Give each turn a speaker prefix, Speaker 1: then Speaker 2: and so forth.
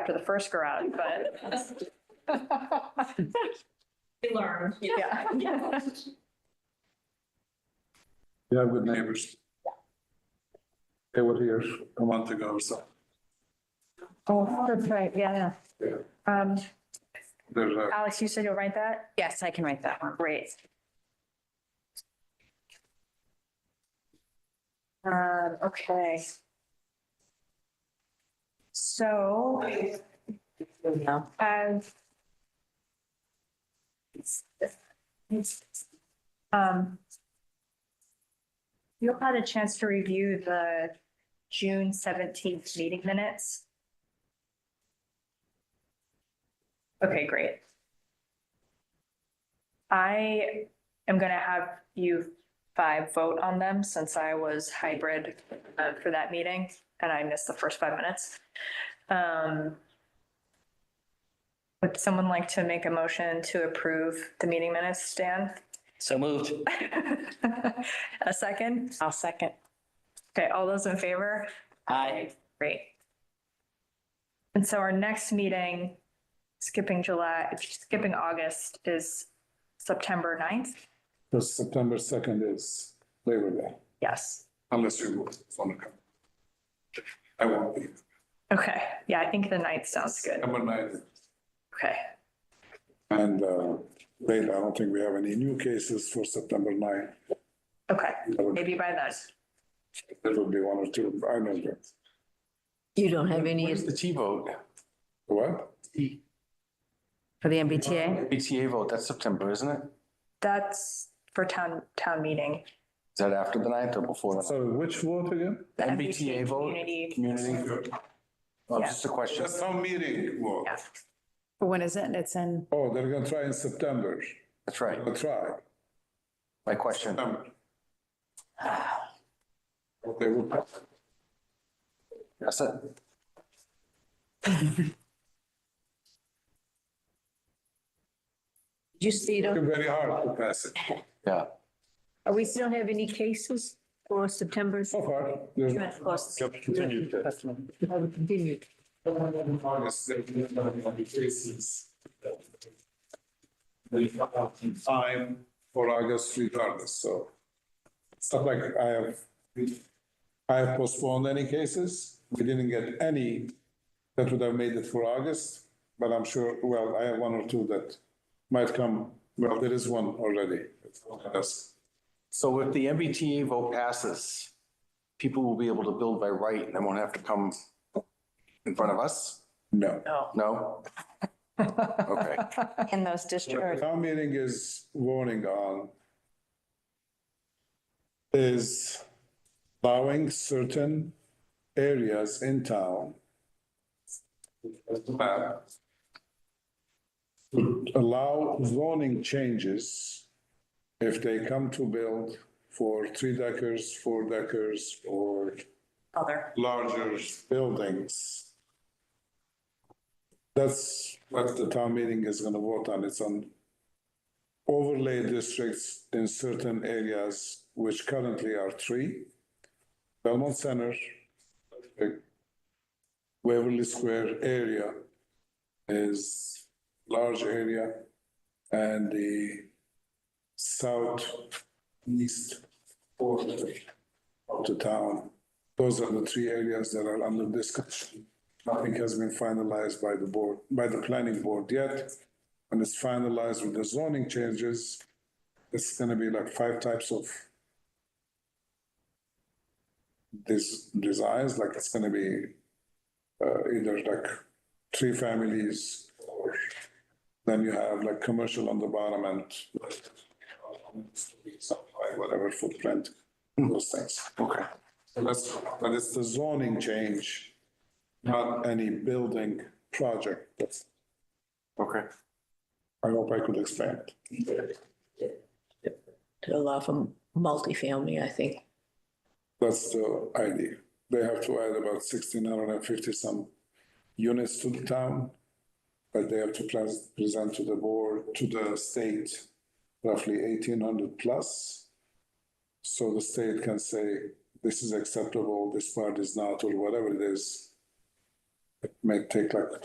Speaker 1: after the first garage, but.
Speaker 2: We learned.
Speaker 1: Yeah.
Speaker 3: Yeah, with neighbors. They were here a month ago, so
Speaker 1: Oh, that's right, yeah,
Speaker 3: Yeah.
Speaker 1: yeah. Um,
Speaker 3: there's a,
Speaker 1: Alex, you said you'll write that? Yes, I can write that one, great. Um, okay. So. I've. Um. You had a chance to review the June seventeenth meeting minutes? Okay, great. I am gonna have you five vote on them since I was hybrid uh, for that meeting and I missed the first five minutes. Um, Would someone like to make a motion to approve the meeting minutes, Stan?
Speaker 4: So moved.
Speaker 1: A second? I'll second. Okay, all those in favor?
Speaker 4: Aye.
Speaker 1: Great. And so our next meeting, skipping July, skipping August is September 9th?
Speaker 3: because September second is Labor Day,
Speaker 1: Yes.
Speaker 3: unless you want to come. I won't be,
Speaker 1: Okay, yeah, I think the 9th sounds good.
Speaker 3: I'm a night,
Speaker 1: Okay,
Speaker 3: and uh, later, I don't think we have any new cases for September ninth.
Speaker 1: okay,
Speaker 3: There will-
Speaker 1: maybe by then.
Speaker 3: there will be one or two, I don't know.
Speaker 5: You don't have any
Speaker 6: Where's the T vote?
Speaker 3: What?
Speaker 5: for the
Speaker 6: Uh,
Speaker 5: MBTA?
Speaker 6: BTA vote, that's September, isn't it? Is
Speaker 1: That's for town, town meeting.
Speaker 6: that after the ninth or before? the
Speaker 3: So which vote again?
Speaker 1: The
Speaker 6: MBTA vote?
Speaker 1: Community,
Speaker 6: Community? Oh, just a question.
Speaker 3: Just some meeting vote.
Speaker 1: yeah.
Speaker 5: When is it? It's in.
Speaker 3: Oh, they're gonna try in September,
Speaker 6: That's right.
Speaker 3: they'll try.
Speaker 6: My question.
Speaker 3: September. They will.
Speaker 6: That's it.
Speaker 5: You see, you don't-
Speaker 3: Very hard to pass it.
Speaker 6: Yeah.
Speaker 5: are we still have any cases for September?
Speaker 3: So far, there's.
Speaker 5: You're at cost.
Speaker 3: Yep, continue.
Speaker 5: Have it continued.
Speaker 3: August, there will not be any cases. We have Time for August regardless, so. It's not like I have, I have postponed any cases. We didn't get any that would have made it for August, but I'm sure, well, I have one or two that might come. Well, there is one already. That's-
Speaker 6: So if the MBTA vote passes, people will be able to build by right and they won't have to come in front of us?
Speaker 3: No.
Speaker 6: No? Okay.
Speaker 1: In those
Speaker 3: The
Speaker 1: districts.
Speaker 3: Town meeting is voting on is allowing certain areas in town map to allow zoning changes if they come to build for three deckers, four deckers, or
Speaker 1: Other.
Speaker 3: larger buildings. That's what the town meeting is gonna vote on. It's on overlay districts in certain areas, which currently are three. Belmont Center, uh, Waverly Square area is large area, and the southeast quarter of the town those are the three areas that are under discussion. Nothing has been finalized by the board, by the planning board yet. When it's finalized with the zoning changes, it's gonna be like five types of des- designs, like it's gonna be uh, either like three families or then you have like commercial on the bottom and whatever footprint, those things.
Speaker 6: Okay.
Speaker 3: That's, but it's the zoning change, not any building project. That's,
Speaker 6: Okay.
Speaker 3: I hope I could explain. it.
Speaker 5: To allow for multifamily, I think.
Speaker 3: That's the idea. They have to add about sixteen hundred and fifty some units to the town. But they have to pres- present to the board, to the state, roughly eighteen hundred plus. So the state can say, this is acceptable, this part is not, or whatever it is. It may take like